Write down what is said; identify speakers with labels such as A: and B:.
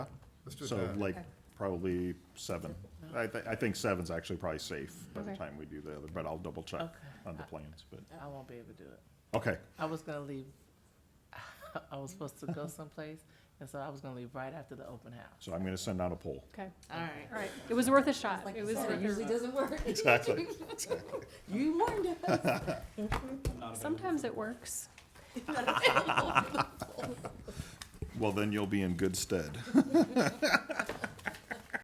A: Let's do it
B: So
A: that.
B: like,
C: Okay.
B: probably seven. I, thi- I think seven's actually probably safe by the
C: Okay. Uh,
B: time we do the other, but I'll double check
D: Okay.
B: on the plans, but,
D: I won't be able to do it.
B: okay.
D: I was gonna leave, I was supposed to go someplace, and so I was gonna leave right after the open house.
B: So I'm gonna send out a poll.
C: Okay,
E: All right.
C: all right. It was worth a shot.
E: Like
C: It
E: you
C: was,
E: said,
C: worth
E: it
C: a-
E: usually doesn't work.
B: Exactly.
E: You warned us.
C: sometimes it works.
B: Well, then you'll be in good stead.